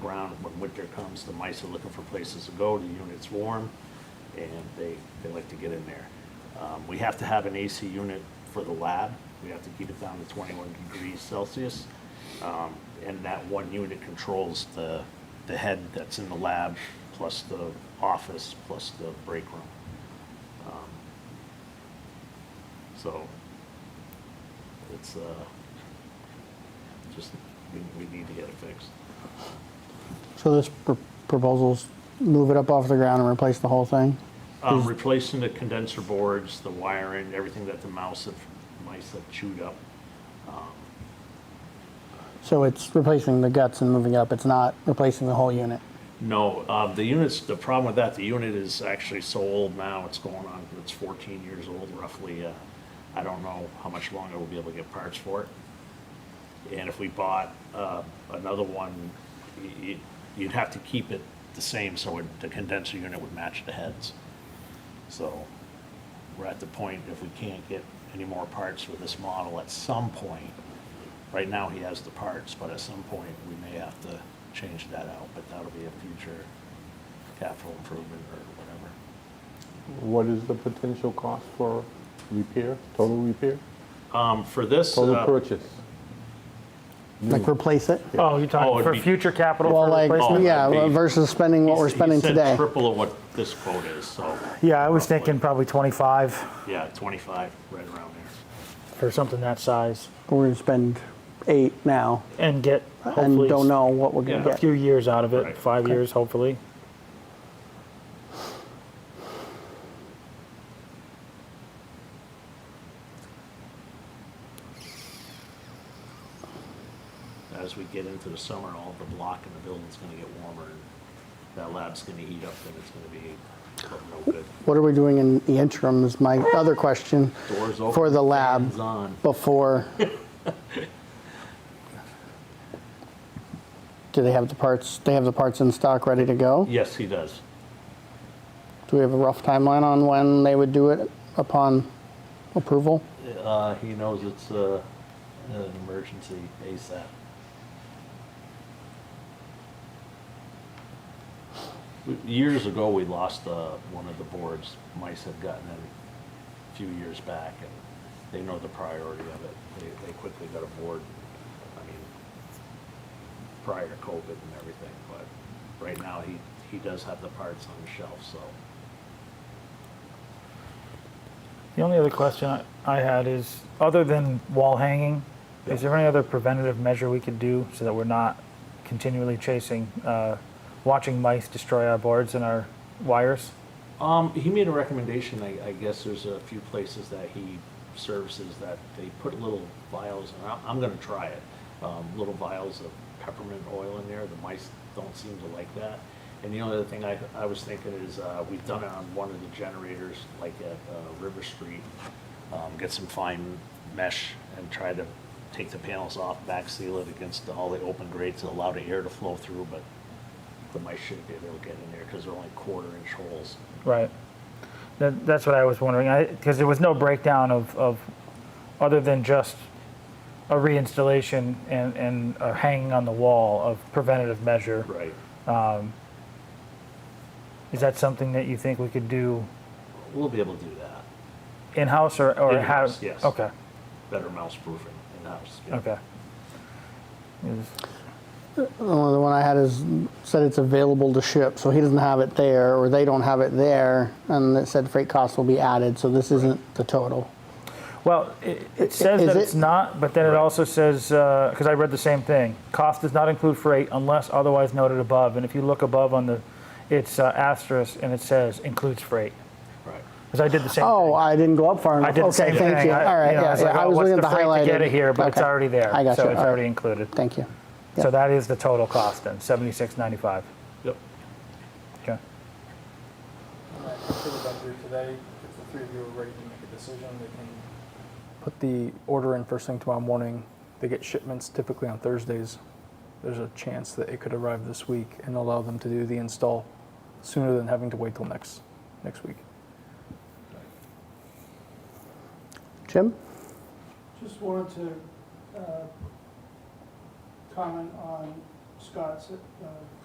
winter comes, the mice are looking for places to go, the unit's warm, and they, they like to get in there. Um, We have to have an AC unit for the lab, we have to keep it down to twenty-one degrees Celsius. Um, And that one unit controls the, the head that's in the lab, plus the office, plus the break room. Um, So, it's, uh, just, we, we need to get it fixed. So this pr- proposal's move it up off the ground and replace the whole thing? Um, replacing the condenser boards, the wiring, everything that the mouse have, mice have chewed up. So it's replacing the guts and moving up, it's not replacing the whole unit? No, uh, the units, the problem with that, the unit is actually so old now, it's going on, it's fourteen years old roughly. Uh, I don't know how much longer we'll be able to get parts for it. And if we bought, uh, another one, y- y- you'd have to keep it the same, so it- the condenser unit would match the heads. So we're at the point, if we can't get any more parts with this model, at some point, right now he has the parts, but at some point, we may have to change that out, but that'll be a future capital improvement or whatever. What is the potential cost for repair, total repair, Um, for this, total uh, purchase? Like replace it? Oh, Oh, you're talking it'd for be- future capital Well, for like, replacement? yeah, that'd be- versus spending what we're he spending said today. triple of what this quote is, so. Yeah, I was roughly. thinking probably 25 Yeah, twenty-five, right around there. for something that size We're gonna spend eight now and get and hopefully don't know what we're Yeah. gonna a get. few years out of it, Right. five years hopefully. As we get into the summer, all the block in the building's gonna get warmer, and that lab's gonna heat up, and it's gonna be no good. What are we doing in the interim is my other question Doors open. for the fans lab on. before. Do they have the parts, they have the parts in stock ready to go? Yes, he does. Do we have a rough timeline on when they would do it upon approval? Uh, he knows it's, uh, an emergency ASAP. Years ago, we lost, uh, one of the boards. Mice had gotten it a few years back, and they know the priority of it. They, they quickly got a board, I mean, prior to COVID and everything, but right now, he, he does have the parts on the shelf, so. The only other question I- I had is, other than wall hanging, is Yeah. there any other preventative measure we could do so that we're not continually chasing, uh, watching mice destroy our boards and our wires? Um, he made a recommendation, I, I guess there's a few places that he services that they put little vials, and I'm, I'm gonna try it. Um, little vials of peppermint oil in there, the mice don't seem to like that. And the only other thing I, I was thinking is, uh, we've done it on one of the generators, like at, uh, River Street. Um, get some fine mesh and try to take the panels off, back seal it against all the open grates, allow the air to flow through, but the mice shouldn't be able to get in there, cause they're only quarter inch holes. Right. That, that's what I was wondering, I, because there was no breakdown of, of, other than just a reinstallation and, and a hanging on the wall of preventative measure. Right. Is that something that you think we could do We'll be able to do that. in-house or, or have? In-house, yes. Okay, Better mouse proofing in-house. yeah. okay. Is- Well, the one I had is said it's available to ship, so he doesn't have it there, or they don't have it there, and it said freight costs will be added, so this isn't the total. Well, it, it says is that it- it's not, but then it also says, because I read the same thing, cost does not include freight unless otherwise noted above. And if you look above on the, it's uh, asterisk and it says includes freight. Right. Because I did the same Oh, thing. I didn't go up far enough. I did the okay, same thank thing. you. I, All right, you know, I yeah, was yeah, like, I "Oh, was what's looking at the the freight highlighted. to get it here, but it's Okay. already there. I got so you. it's All right. already included. Thank you. So Yeah. that is the total cost then, seventy-six ninety-five. Yep. Okay. I put it up here today. If the three of you are ready to make a decision, they can put the order in first thing tomorrow morning. They get shipments typically on Thursdays. There's a chance that it could arrive this week and allow them to do the install sooner than having to wait till next next week. Jim? Just wanted to uh, comment on Scott's uh,